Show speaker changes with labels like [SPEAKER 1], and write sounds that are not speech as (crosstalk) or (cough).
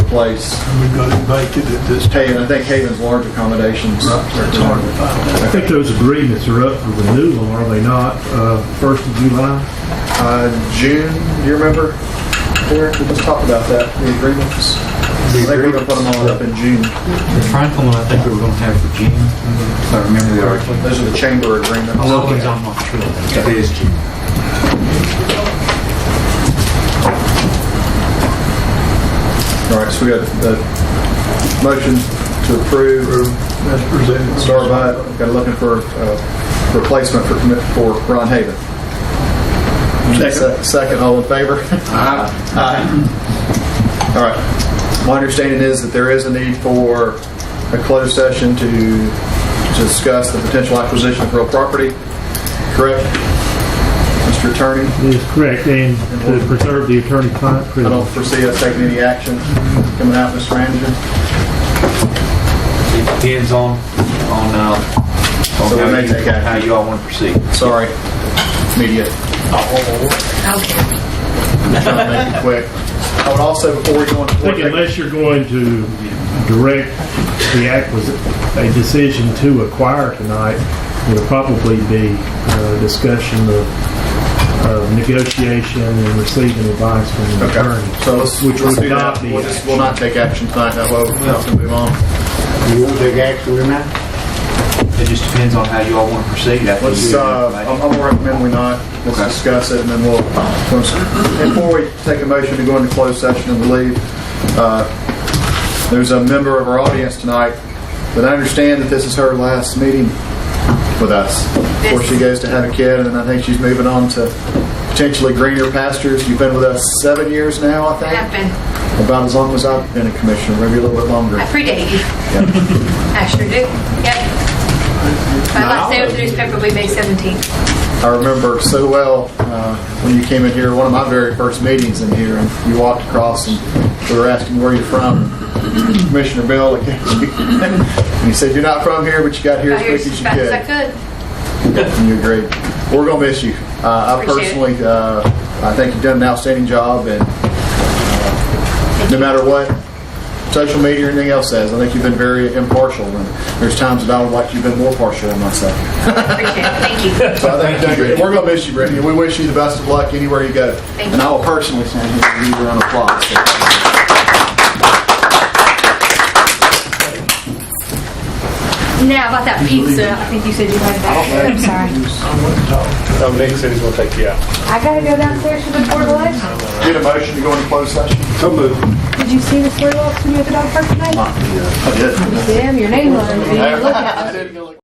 [SPEAKER 1] place.
[SPEAKER 2] and we've got it vacant at this time.
[SPEAKER 1] Haven, I think Haven's large accommodations.
[SPEAKER 2] It's hard to find
[SPEAKER 3] I think those agreements are up for renewal, are they not? Uh, First of July?
[SPEAKER 1] Uh, June, do you remember? Eric, we just talked about that, the agreements. I think we're gonna put them all up in June.
[SPEAKER 4] The Franklin one, I think we were going to have for June, if I remember correctly.
[SPEAKER 1] Those are the chamber agreements.
[SPEAKER 4] Although it's on my trip. It is June.
[SPEAKER 1] All right, so we got the motion to approve,
[SPEAKER 2] That's presented.
[SPEAKER 1] Starbite, got looking for uh, replacement for, commit- for Ron Haven. Se- Second, all in favor? Aye. All right. My understanding is that there is a need for a closed session to discuss the potential acquisition of real property, correct? Mr. Attorney,
[SPEAKER 3] That is correct, and to preserve the attorney-client
[SPEAKER 1] I
[SPEAKER 3] privilege.
[SPEAKER 1] don't foresee us taking any action coming out, Mr. Manager.
[SPEAKER 4] It depends on, on, uh, on
[SPEAKER 1] So we
[SPEAKER 4] how
[SPEAKER 1] may
[SPEAKER 4] you-
[SPEAKER 1] take action.
[SPEAKER 4] how you all want to proceed.
[SPEAKER 1] Sorry, media. Trying to make it quick. I would also, before we go into
[SPEAKER 3] I think unless you're going to direct the acquisition, a decision to acquire tonight, it'll probably be uh, discussion of uh, negotiation and receiving advice from the attorney.
[SPEAKER 1] Okay, so let's,
[SPEAKER 3] Which
[SPEAKER 1] let's
[SPEAKER 3] would
[SPEAKER 1] do
[SPEAKER 3] not
[SPEAKER 1] that.
[SPEAKER 3] be
[SPEAKER 1] We'll just, we'll not take action tonight, that way we'll have to move on.
[SPEAKER 4] You want to take action or not? It just depends on how you all want to proceed. after
[SPEAKER 1] Let's,
[SPEAKER 4] you-
[SPEAKER 1] uh, I'm I'm gonna recommend we not, let's
[SPEAKER 4] Okay.
[SPEAKER 1] discuss it, and then we'll, once- before we take a motion to go into closed session and leave, uh, there's a member of our audience tonight that I understand that this is her last meeting with us before she goes to have a kid, and I think she's moving on to potentially greener pastures. You've been with us seven years now, I
[SPEAKER 5] I have
[SPEAKER 1] think?
[SPEAKER 5] been.
[SPEAKER 1] About as long as I've been a commissioner, maybe a little bit longer.
[SPEAKER 5] I predate you. I sure do. Yep. My last day with the newspaper will be May 17th.
[SPEAKER 1] I remember so well uh, when you came in here, one of my very first meetings in here, and you walked across and we were asking where you're from. Commissioner Bill, like, (laughs) and he said, You're not from here, but you got here
[SPEAKER 5] Got
[SPEAKER 1] as quick
[SPEAKER 5] here as
[SPEAKER 1] as you
[SPEAKER 5] fast as I
[SPEAKER 1] could.
[SPEAKER 5] could.
[SPEAKER 1] And you agreed. We're going to miss you. Uh, I
[SPEAKER 5] Appreciate it.
[SPEAKER 1] personally, uh, I think you've done an outstanding job, and uh, no matter what social media or anything else says, I think you've been very impartial. And there's times that I would like you've been more partial than myself.
[SPEAKER 5] Appreciate it. Thank you.
[SPEAKER 1] So I think Deidre, we're going to miss you, Brittany. We wish you the best of luck anywhere you go.
[SPEAKER 5] Thank you.
[SPEAKER 1] And I will personally send you a round of applause.
[SPEAKER 5] Now, about that pizza, I think you said you liked that. I'm sorry.
[SPEAKER 6] No, Oh, Nick said he's gonna take you out.
[SPEAKER 7] I gotta go downstairs to the board of election.
[SPEAKER 1] Get a motion to go into closed session?
[SPEAKER 6] So moved.
[SPEAKER 7] Did you see the board of election you at the dog park tonight?
[SPEAKER 1] I did.
[SPEAKER 7] Damn, your name was.
[SPEAKER 1] I did.